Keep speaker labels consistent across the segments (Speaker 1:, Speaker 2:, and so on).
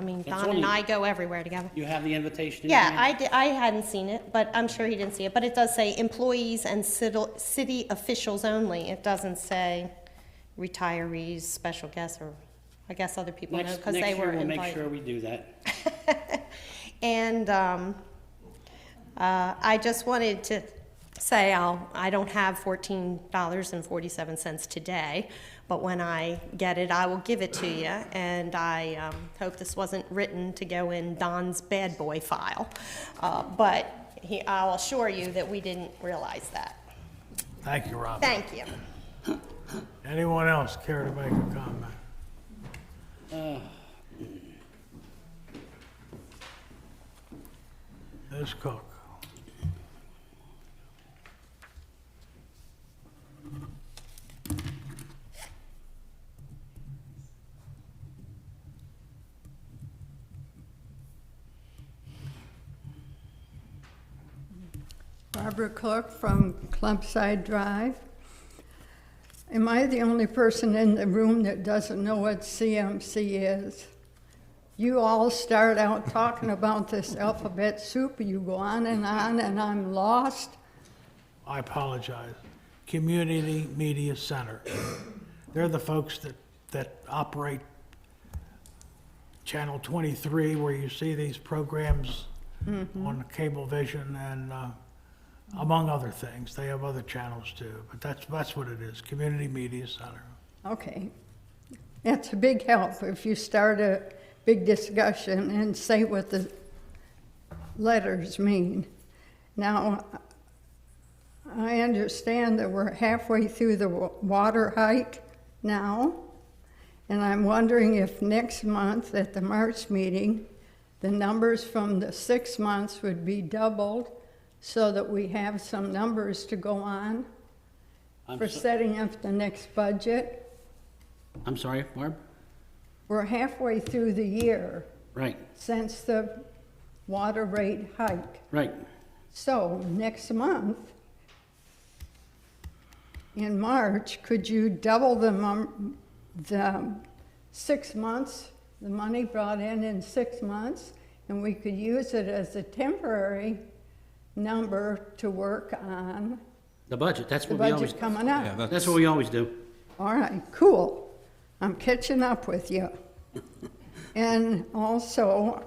Speaker 1: mean,
Speaker 2: It's
Speaker 3: Don and
Speaker 2: only-
Speaker 3: I go everywhere together.
Speaker 2: You have the invitation? in your
Speaker 3: Yeah,
Speaker 2: hand?
Speaker 3: I, di- I hadn't seen it, but I'm sure he didn't see it, but it does say employees and city, city officials only. It doesn't say retirees, special guests, or, I guess other people know,
Speaker 2: Next,
Speaker 3: because they
Speaker 2: next
Speaker 3: were
Speaker 2: year, we'll make sure
Speaker 3: invited.
Speaker 2: we do that.
Speaker 3: And, um, uh, I just wanted to say I'll, I don't have fourteen dollars and forty-seven cents today, but when I get it, I will give it to you, and I, um, hope this wasn't written to go in Don's bad boy file. Uh, but he, I'll assure you that we didn't realize that.
Speaker 4: Thank you, Robin.
Speaker 3: Thank you.
Speaker 4: Anyone else care to make a comment? Ms. Cook?
Speaker 5: Barbara Cook from Clumpside Drive. Am I the only person in the room that doesn't know what CMC is? You all start out talking about this alphabet soup, you go on and on, and I'm lost.
Speaker 4: I apologize. Community Media Center. They're the folks that, that operate Channel 23, where you see these programs on Cablevision and, uh, among other things. They have other channels too, but that's, that's what it is, Community Media Center.
Speaker 5: Okay. That's a big help if you start a big discussion and say what the letters mean. Now, I understand that we're halfway through the wa- water hike now, and I'm wondering if next month at the March meeting, the numbers from the six months would be doubled so that we have some numbers to go on
Speaker 2: I'm
Speaker 5: for
Speaker 2: so-
Speaker 5: setting up the next budget.
Speaker 2: I'm sorry, Barb?
Speaker 5: We're halfway through the year
Speaker 2: Right,
Speaker 5: since the water rate hike.
Speaker 2: right.
Speaker 5: So next month, in March, could you double the, mum- the six months, the money brought in in six months? And we could use it as a temporary number to work on
Speaker 2: The budget, that's
Speaker 5: the
Speaker 2: what we always,
Speaker 5: budget coming up.
Speaker 6: Yeah, that's,
Speaker 2: that's what we always do.
Speaker 5: All right, cool. I'm catching up with you. And also,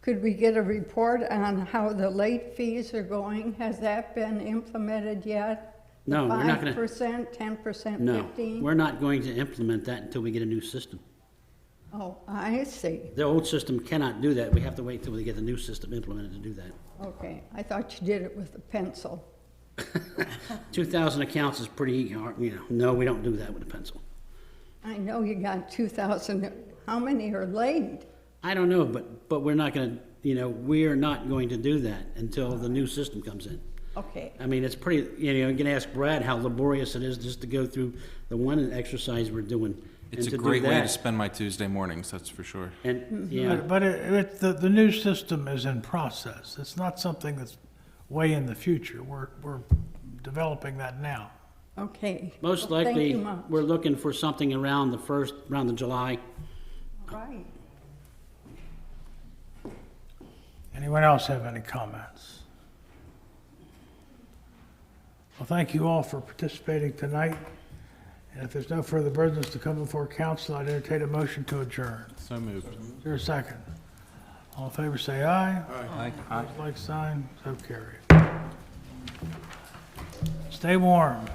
Speaker 5: could we get a report on how the late fees are going? Has that been implemented yet?
Speaker 2: No, we're not gonna-
Speaker 5: Five percent, ten percent,
Speaker 2: No,
Speaker 5: fifteen?
Speaker 2: we're not going to implement that until we get a new system.
Speaker 5: Oh, I see.
Speaker 2: The old system cannot do that. We have to wait till we get the new system implemented to do that.
Speaker 5: Okay, I thought you did it with a pencil.
Speaker 2: 2,000 accounts is pretty, hard, you know, no, we don't do that with a pencil.
Speaker 5: I know you got two thousand, how many are late?
Speaker 2: I don't know, but, but we're not gonna, you know, we're not going to do that until the new system comes in.
Speaker 5: Okay,
Speaker 2: I mean, it's pretty, you know, you can ask Brad how laborious it is just to go through the one exercise we're doing. and
Speaker 6: it's
Speaker 2: to
Speaker 6: a
Speaker 2: do
Speaker 6: great way to
Speaker 2: that.
Speaker 6: spend my Tuesday mornings, that's for sure.
Speaker 5: Mm-hmm.
Speaker 2: And, you know,
Speaker 4: But but it, it, the, the new system is in process. It's not something that's way in the future. We're, we're developing that now.
Speaker 5: okay.
Speaker 2: most
Speaker 5: Well, thank
Speaker 2: likely,
Speaker 5: you much.
Speaker 2: we're looking for something around the first, around the July.
Speaker 5: All right.
Speaker 4: Anyone else have any comments? Well, thank you all for participating tonight. And if there's no further business to come before council, I'd entertain a motion to adjourn.
Speaker 6: So moved.
Speaker 4: Is there a second? All in favor, say aye. Aye. Like sign, so carry. Stay warm.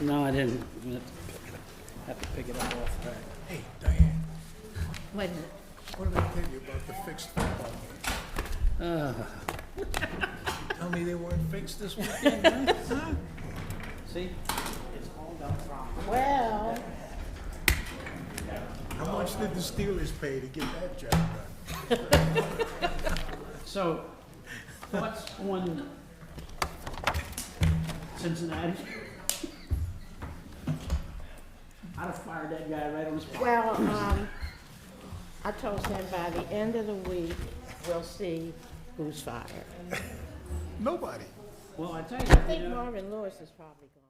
Speaker 2: No, I didn't. I'm gonna Have to pick it up Have to pick it up off.
Speaker 7: Hey, Diane,
Speaker 3: Wait a minute.
Speaker 7: what did I tell you about the fixed football? Tell me they weren't fixed this weekend, huh?
Speaker 2: See?
Speaker 7: How much did the Steelers pay to get that job done?
Speaker 2: So, what's on Cincinnati? I'd have fired that guy right on the spot.
Speaker 8: Well, um, I told him by the end of the week, we'll see who's fired.
Speaker 7: Nobody.
Speaker 2: Well, I tell you,
Speaker 8: I
Speaker 2: you
Speaker 8: think
Speaker 2: know-
Speaker 8: Marvin Lewis is probably gone.